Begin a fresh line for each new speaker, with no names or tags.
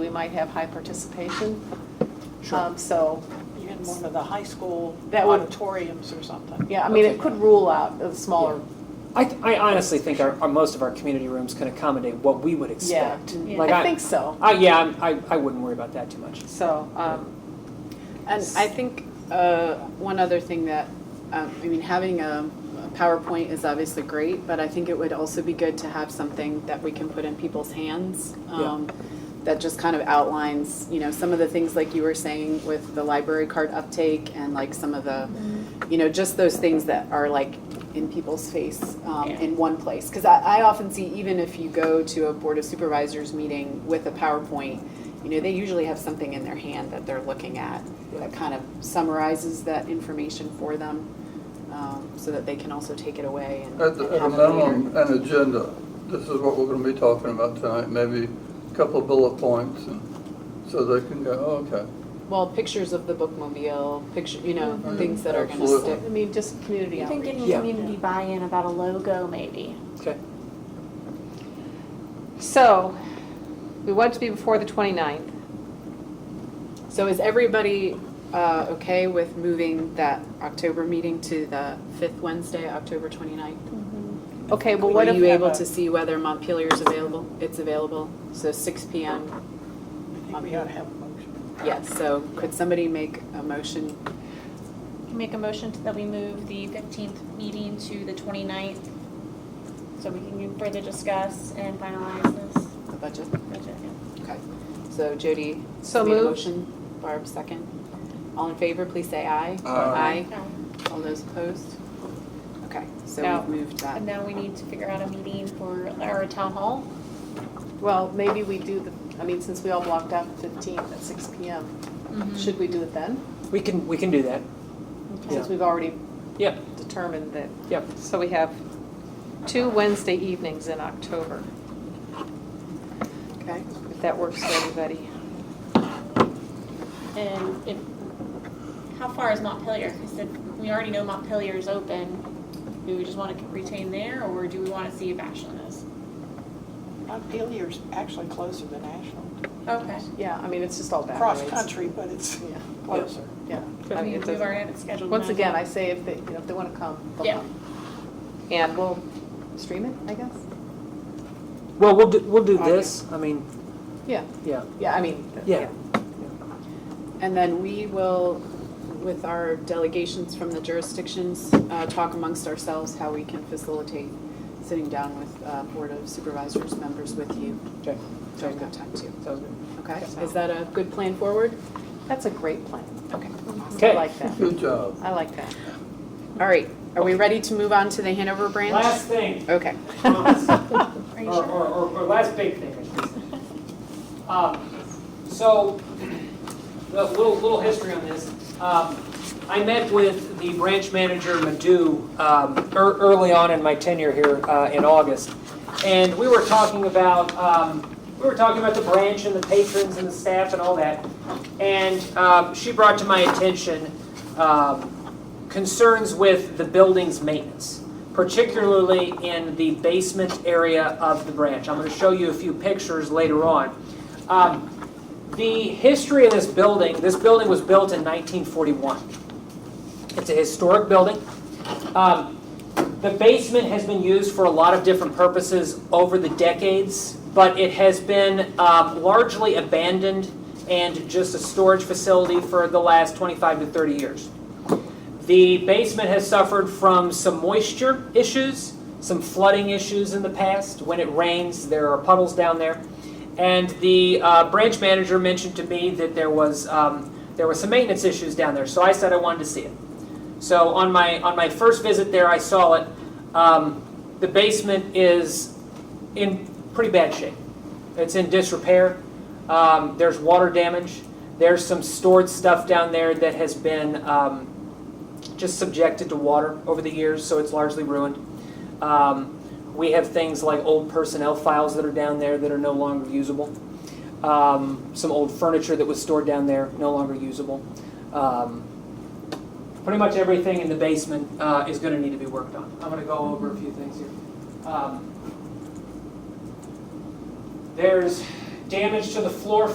might have high participation.
Sure.
Um, So,
in one of the high school
That would-
auditoriums or something.
yeah, I mean, it could rule out the smaller,
I, th- I honestly think our, our, most of our community rooms can accommodate what we would
yeah.
expect.
Mm-hmm.
Yeah.
Like
I think so,
I, yeah, I'm- I, I wouldn't worry about that too much.
so, um,
And I think uh, one other thing that, um, I mean, having a PowerPoint is obviously great, but I think it would also be good to have something that we can put in people's hands. um, That just kind of outlines, you know, some of the things like you were saying with the library card uptake and like some of the, you know, just those things that are like in people's face um,
Yeah.
in one place. Because I, I often see, even if you go to a Board of Supervisors meeting with a PowerPoint, you know, they usually have something in their hand that they're looking at that kind of summarizes that information for them, um, so that they can also take it away and
At
and
the- at a
have it later.
minimum, an agenda. This is what we're going to be talking about tonight, maybe a couple of bullet points, and so they can go, "Oh, okay.
Well, pictures of the bookmobile, picture, you know,
Mm-hmm.
Mhm.
things that are gonna
Absolutely.
stick.
I mean, just community
Even
outreach.
getting
Yeah.
community buy-in about a logo, maybe.
Okay.
So, we want it to be before the 29th.
So is everybody uh, okay with moving that October meeting to the fifth Wednesday, October 29ninth?
Okay, well, what
Were
if?
you
we
able
have
to
a-
see whether Montpelier's available? It's available, so six PM,
I think we ought to have a motion.
yes, so could somebody make a motion?
Make a motion that we move the 15th meeting to the 29th, so we can further discuss and finalize this
The budget,
budget.
okay. So Jody
So
made a
moved.
motion, Barb second. All in favor, please say aye.
Aye.
All those opposed? Okay, so
Now-
we've moved that.
And now we need to figure out a meeting for, or a town hall.
Well, maybe we do the, I mean, since we all blocked out the 15th at 6 PM, should we do it then?
We can, we can do that.
Since we've already
Yeah,
determined that,
yeah.
So we have two Wednesday evenings in October,
Okay.
if that works for everybody.
And if, how far is Montpelier? Because we already know Montpelier is open. Do we just want to retain there, or do we want to see if Ashland is?
Montpelier's actually closer than Ashland.
Okay.
yeah, I mean, it's just all backwards.
Cross-country, but it's
Yeah,
closer.
I
yeah. I mean,
mean,
it
we've
doesn't-
already had it scheduled.
Once
now.
again, I say if they, you know, if they want to come, they'll
Yeah.
come.
And we'll,
Stream it, I guess?
Well, we'll do, we'll do this. I mean,
Yeah,
yeah,
yeah, I mean,
yeah.
And then we will, with our delegations from the jurisdictions, uh, talk amongst ourselves how we can facilitate sitting down with uh, Board of Supervisors members with you
Okay,
during that time too.
sounds good.
Okay, is that a good plan forward?
That's a great plan.
Okay.
I
Okay.
like that.
Good job.
I like that.
All right, are we ready to move on to the Hanover branch?
Last thing,
Okay.
promise.
Are you
Or,
sure?
or, or or last big thing, I should say. Um, So, a little, little history on this. Um, I met with the branch manager, Madhu, um, ear- early on in my tenure here uh, in August. And we were talking about, um, we were talking about the branch and the patrons and the staff and all that. And um, she brought to my attention um, concerns with the building's maintenance, particularly in the basement area of the branch. I'm going to show you a few pictures later on. Um, The history of this building, this building was built in 1941. It's a historic building. Um, The basement has been used for a lot of different purposes over the decades, but it has been um, largely abandoned and just a storage facility for the last 25 to 30 years. The basement has suffered from some moisture issues, some flooding issues in the past. When it rains, there are puddles down there. And the uh, branch manager mentioned to me that there was, um, there was some maintenance issues down there, so I said I wanted to see it. So on my, on my first visit there, I saw it. Um, The basement is in pretty bad shape. It's in disrepair. Um, There's water damage. There's some stored stuff down there that has been, um, just subjected to water over the years, so it's largely ruined. Um, we have things like old personnel files that are down there that are no longer usable. Um, some old furniture that was stored down there, no longer usable. Um, pretty much everything in the basement uh, is going to need to be worked on. I'm going to go over a few things here. Um, there's damage to the floor